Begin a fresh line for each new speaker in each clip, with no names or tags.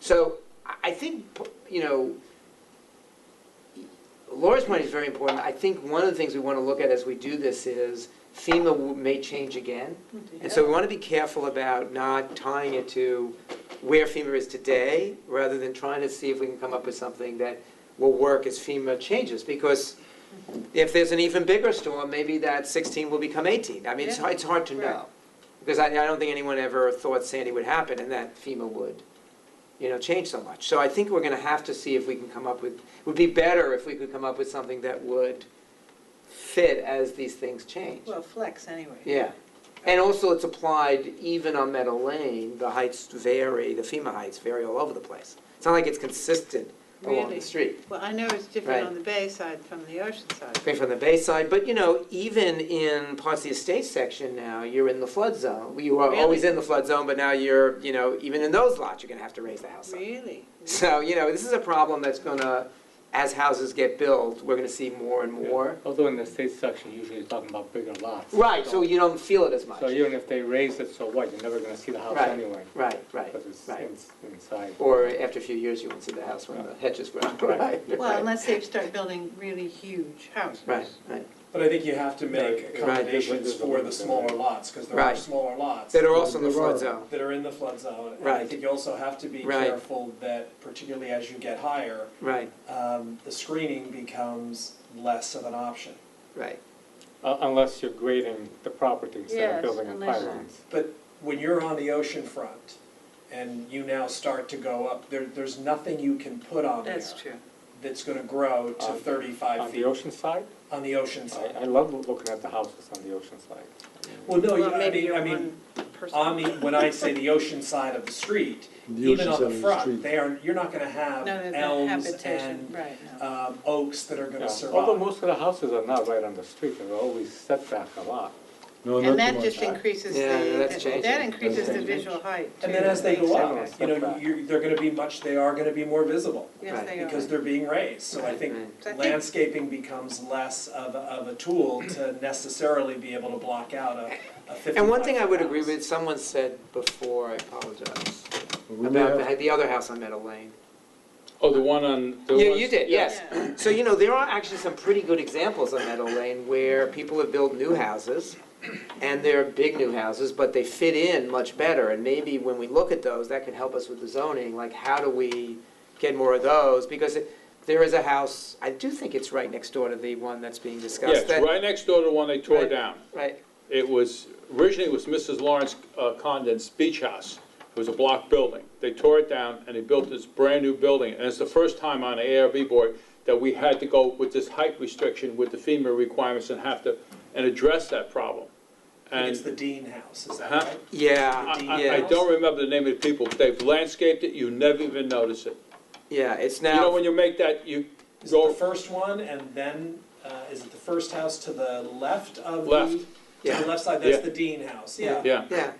So I- I think, you know, Laura's point is very important. I think one of the things we want to look at as we do this is FEMA w- may change again. And so we want to be careful about not tying it to where FEMA is today, rather than trying to see if we can come up with something that will work as FEMA changes. Because if there's an even bigger storm, maybe that 16 will become 18. I mean, it's,
Yeah.
it's hard to
Right.
know. Because I, I don't think anyone ever thought Sandy would happen and that FEMA would, you know, change so much. So I think we're going to have to see if we can come up with, would be better if we could come up with something that would fit as these things change.
Well, flex anyway.
Yeah, and also it's applied even on Meadow Lane, the heights vary, the FEMA heights vary all over the place. It's not like it's consistent along
Really?
the street,
Well, I know it's
Right.
different on the bay side from the ocean side.
coming from the Bayside, but you know, even in parts of the estate section now, you're in the flood zone. You are always
Really?
in the flood zone, but now you're, you know, even in those lots, you're gonna have to raise the house up.
Really?
So, you know, this is a problem that's gonna, as houses get built, we're gonna see more and more.
Although in the state section, usually you're talking about bigger lots.
Right, so you don't feel it as much.
So even if they raise it, so what, you're never gonna see the house
Right.
anyway,
Right, right,
because it's
right.
in- inside.
Or after a few years, you won't see the house when the hedges grow.
Right.
Well, unless they start building really huge houses.
Right, right.
But I think you have to
Right,
make
right.
accommodations for the smaller lots, because there are
Right.
smaller lots
That are also in the
There
flood
are.
zone.
that are in the flood zone. And I
Right.
think you also have to be
Right.
careful that particularly as you get higher,
Right,
um, the screening becomes less of an option.
right.
Uh, Unless you're grading the property instead
Yes,
of building in
unless-
pylons.
But when you're on the ocean front and you now start to go up, there, there's nothing you can put on there
That's true.
that's gonna grow to
On-
thirty-five
On the
feet
ocean side,
on the ocean
I,
side.
I love looking at the houses on the ocean side.
Well, no, you-
Well,
I
maybe
mean,
you're
I mean,
one person.
on the, when I say the ocean side of the street,
The
even on
ocean side
the
of the
front,
street.
they are, you're not gonna have
No, that's not
elms
habitation,
and
right, no.
um, oaks that are
Yeah.
gonna
Although
survive.
most of the houses are not right on the street, they're always set back a lot.
No,
And
not
that
too
just
much.
increases
Yeah, that's
the,
changing.
that increases the
That's changing.
visual height. too,
And then as they go up,
makes sense.
you know, you're, they're gonna be much, they are gonna be more visible
Yes, they
because
are.
they're being raised. So I think
Right.
So I think-
landscaping becomes less of, a- of a tool to necessarily be able to block out a a fifty-five
And one thing I would
foot
agree
house.
with, someone said before, I apologize,
We may
about
have-
the, the other house on Meadow Lane.
Uh, Oh, the one on, the
You,
ones-
you did, yes.
Yeah.
So, you know, there are actually some pretty good examples on Meadow Lane where people have built new houses, and they're big new houses, but they fit in much better, and maybe when we look at those, that can help us with the zoning, like, how do we get more of those? Because it- there is a house, I do think it's right next door to the one that's being
yeah,
discussed.
it's
that-
right next door to the one they tore
Right.
down.
Right,
It was, originally it was Mrs. Lawrence uh, Condon's beach house. It was a block building. They tore it down and they built this brand-new building. And it's the first time on the ARB board that we had to go with this height restriction with the FEMA requirements and have to, and address that problem.
I think
And
It's the E Dean House, is that
Huh?
right?
yeah,
The
I- I, I
yeah,
don't remember the name of the people. but They've landscaped it, you never even notice it.
yeah, it's
You know,
now,
when you make that, you
Is it
go
the first one and then, uh, is it the first house to the left of the?
Left.
To
Yeah.
the left side, that's
Yeah.
the Dean House, yeah.
yeah,
yeah,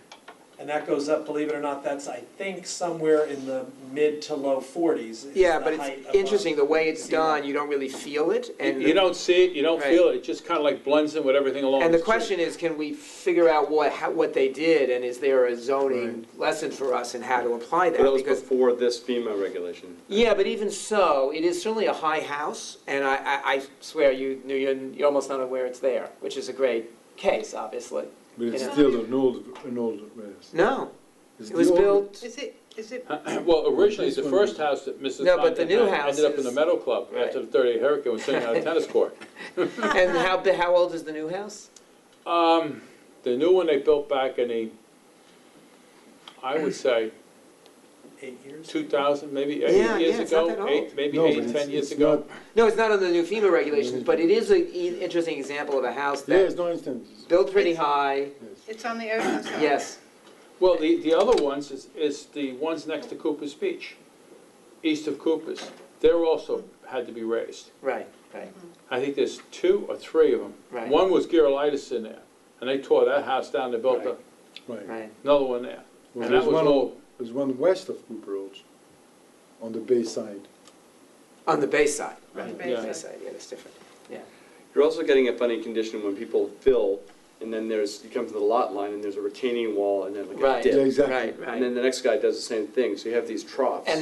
And that goes up, believe it or not, that's, I think, somewhere in the mid to low forties is
yeah,
the
but
height uh,
it's
above.
interesting, the way it's
If you want.
done, you don't really feel it, and.
uh, you don't see it, you don't
Right.
feel it. It just kind of like blends in with everything along
And the
the street.
question is, can we figure out what, how, what they did, and is there a zoning lesson for us in how to apply that?
But that was
Because-
before this FEMA regulation.
Yeah, but even so, it is certainly a high house, and I, I, I swear, you, knew- you're, you're almost not aware it's there, which is a great case, obviously.
But it's
you know.
still an old, an old rest.
No,
It's
it was
the old-
built,
Is it, is it,
Well, originally,
This
the
one
first
was-
house that Mrs.
No, but the
Condon
new
had
house
ended up in the
is-
Meadow Club after the thirty-eight hurricane was sitting on a tennis court.
and how, bi- how old is the new house?
Um, the new one they built back in the, I would say,
Eight years?
two thousand, maybe
Yeah,
eight
yeah,
years
it's not
ago,
that
eight,
old.
maybe
No, but
eight,
it's-
ten years
it's
ago.
not-
No, it's not on the new FEMA regulations, but it is an interesting example of a house
Yeah, it's
that
no instant. It's-
built pretty high,
yes.
it's on the ocean side?
yes,
Well, the, the other ones is, is the ones next to Cooper's Beach, east of Cooper's. They're also had to be raised.
right, right,
I think there's two or three of them.
Right.
One was Girolitis in there, and they tore that house down, they built a-
Right.
right,
another one there. And
Well,
that
there's
was
one,
all,
there's one west of Cooper Road, on the bay side.
on the bay side.
On the
Yeah.
basis.
Bayside, yeah, that's different.
You're also getting a funny condition when people fill, and then there's, you come to the lot line, and there's a retaining wall, and then like
Right.
a
Yeah,
dip.
exactly.
Right, right.
And then the next guy does the same thing, so you have these troughs.
And